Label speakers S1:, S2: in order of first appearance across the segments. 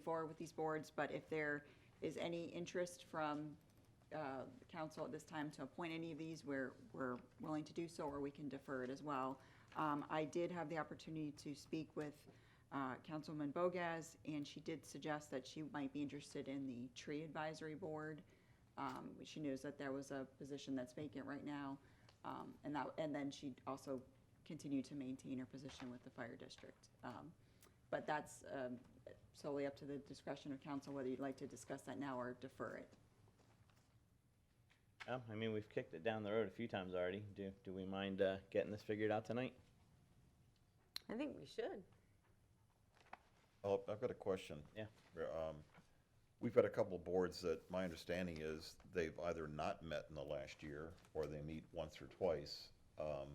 S1: forward with these boards, but if there is any interest from uh, the council at this time to appoint any of these, we're, we're willing to do so, or we can defer it as well. Um, I did have the opportunity to speak with uh, Councilwoman Bogas, and she did suggest that she might be interested in the Tree Advisory Board. Um, She knows that there was a position that's vacant right now, um, and that, and then she also continued to maintain her position with the Fire District. Um, But that's um, solely up to the discretion of council, whether you'd like to discuss that now or defer it.
S2: Yeah, I mean, we've kicked it down the road a few times already. Do, do we mind uh, getting this figured out tonight?
S3: I think we should.
S4: Oh, I've got a question.
S2: Yeah.
S4: Yeah, um, We've got a couple of boards that, my understanding is, they've either not met in the last year, or they meet once or twice. Um,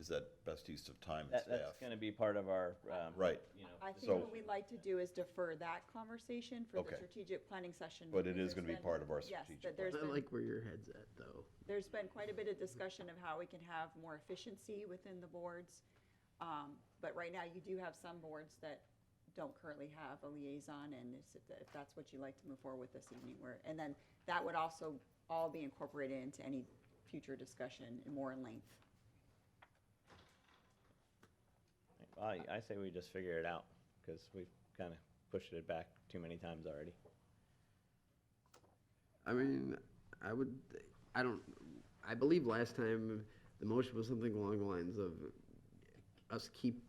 S4: Is that best use of time and
S2: That, that's going
S4: staff?
S2: to be part of our, um,
S4: Right.
S2: you know.
S1: I think
S4: So-
S1: what we'd like to do is defer that conversation for the
S4: Okay.
S1: strategic planning session.
S4: But it
S1: because
S4: is gonna
S1: there's
S4: be
S1: been-
S4: part of our
S1: Yes,
S4: strategic
S1: that there's
S5: I
S1: been
S5: like where your head's at, though.
S1: there's been quite a bit of discussion of how we can have more efficiency within the boards. Um, But right now, you do have some boards that don't currently have a liaison, and if if that's what you'd like to move forward with this evening, where, and then that would also all be incorporated into any future discussion in more in length.
S2: I, I say we just figure it out because we've kind of pushed it back too many times already.
S5: I mean, I would, I don't, I believe last time the motion was something along the lines of us keep,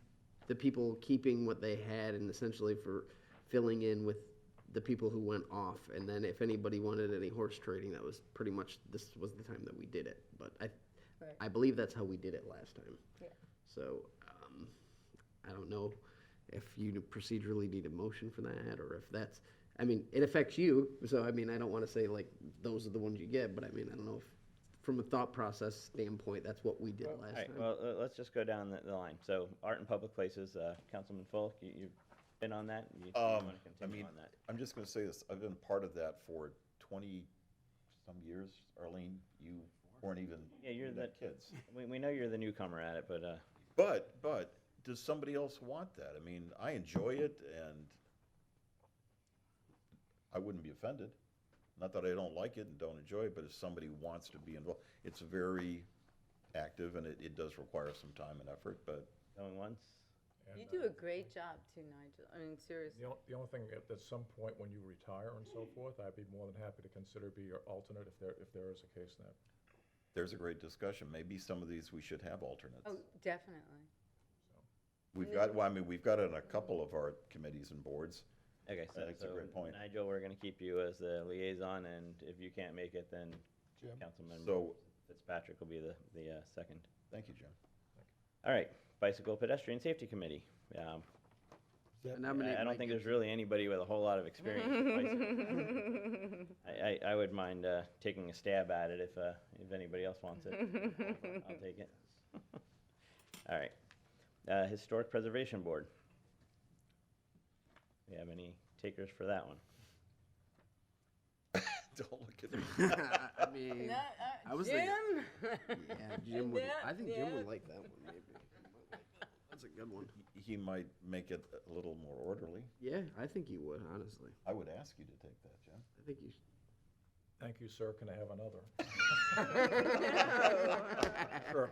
S5: the people keeping what they had and essentially for filling in with the people who went off. And then if anybody wanted any horse trading, that was pretty much, this was the time that we did it. But I,
S3: Right.
S5: I believe that's how we did it last time.
S3: Yeah.
S5: So, um, I don't know if you procedurally need a motion for that, or if that's, I mean, it affects you, so I mean, I don't wanna say like, those are the ones you get, but I mean, I don't know if, from a thought process standpoint, that's what we did
S2: All
S5: last
S2: right,
S5: time.
S2: well, uh, let's just go down the, the line. So art in public places, uh, Councilman Fulk, you, you've been on that. You,
S4: Um,
S2: want to
S4: I
S2: continue
S4: mean,
S2: on that?
S4: I'm just gonna say this, I've been part of that for twenty-some years. Arlene, you weren't even,
S2: Yeah, you're
S4: you
S2: the-
S4: kids.
S2: We, we know you're the newcomer at it, but uh,
S4: But, but, does somebody else want that? I mean, I enjoy it and I wouldn't be offended. Not that I don't like it and don't enjoy it, but if somebody wants to be involved, it's very active and it, it does require some time and effort, but
S2: going once.
S3: You
S6: And,
S3: do
S6: uh,
S3: a great job too, Nigel. I mean, seriously.
S6: The only, the only thing, at, at some point when you retire and so forth, I'd be more than happy to consider be your alternate if there, if there is a case in that.
S4: there's a great discussion. Maybe some of these we should have alternates.
S3: Oh, definitely.
S4: We've got, well, I mean, we've got it on a couple of our committees and boards.
S2: Okay, so,
S4: That's a
S2: so
S4: great point.
S2: Nigel, we're going to keep you as the liaison, and if you can't make it, then Councilman
S4: So-
S2: Fitzpatrick will be the, the uh, second.
S4: Thank you, Jim.
S2: All right, Bicycle Pedestrian Safety Committee. Um,
S5: I
S2: I-
S5: nominate
S2: I don't
S5: Mike
S2: think there's really anybody with a whole lot of experience. with bicycles. I, I, I would mind uh, taking a stab at it if, uh, if anybody else wants it. I'll take it. All right. Uh, Historic Preservation Board. Do you have any takers for that one?
S4: Don't look at me.
S5: Gibson. I mean,
S3: No, uh,
S5: I was
S3: Jim.
S5: thinking- yeah, Jim would,
S3: Yeah,
S5: I think Jim would
S3: yeah.
S5: like that one, maybe. That's a good one.
S4: He might make it a little more orderly.
S5: Yeah, I think you would, honestly.
S4: I would ask you to take that, Jim.
S5: I think you should.
S6: Thank you, sir. Can I have another? Sure.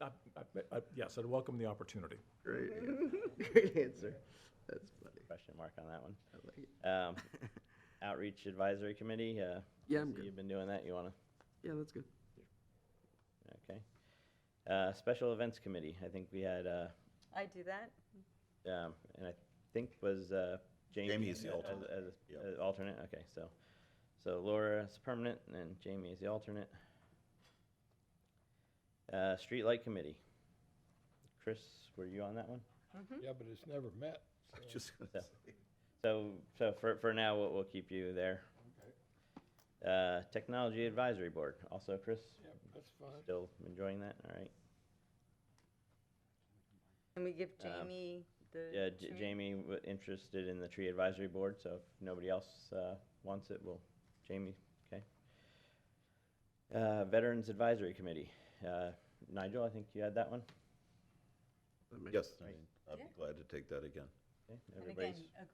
S6: I- I- I- Yes, I'd welcome the opportunity.
S5: Great, yeah. great answer. That's funny.
S2: Question mark on that one.
S5: I like it.
S2: Um, Outreach Advisory Committee. Uh,
S5: Yeah, I'm
S2: so
S5: good.
S2: You've been doing that. You want to?
S5: Yeah, that's good.
S2: Okay. Uh, Special Events Committee. I think we had uh,
S3: I do that.
S2: Um, and I think was, uh, Jamie.
S4: Jamie is the
S2: as-
S4: alternate.
S2: As,
S4: Yep.
S2: as alternate, okay, so, so Laura is permanent and Jamie is the alternate. Uh, Streetlight Committee. Chris, were you on that one?
S7: Yeah, but it's never met. so-
S4: Just gonna
S2: Yeah.
S4: say.
S2: So, so for, for now, we'll, we'll keep you there. Uh, Technology Advisory Board, also Chris,
S7: Yeah, that's fine.
S2: still enjoying that, all right?
S3: And we give
S2: Um,
S3: Jamie the.
S2: Yeah, J-
S3: tree.
S2: Jamie was interested in the tree advisory board, so if nobody else uh, wants it, well, Jamie, okay. Uh, Veterans Advisory Committee, Uh, Nigel, I think you had that one?
S5: That makes-
S4: Yes, I mean, I'd be
S3: Yeah.
S4: glad to take that again.
S2: Okay,
S3: And
S2: everybody's.
S3: again, a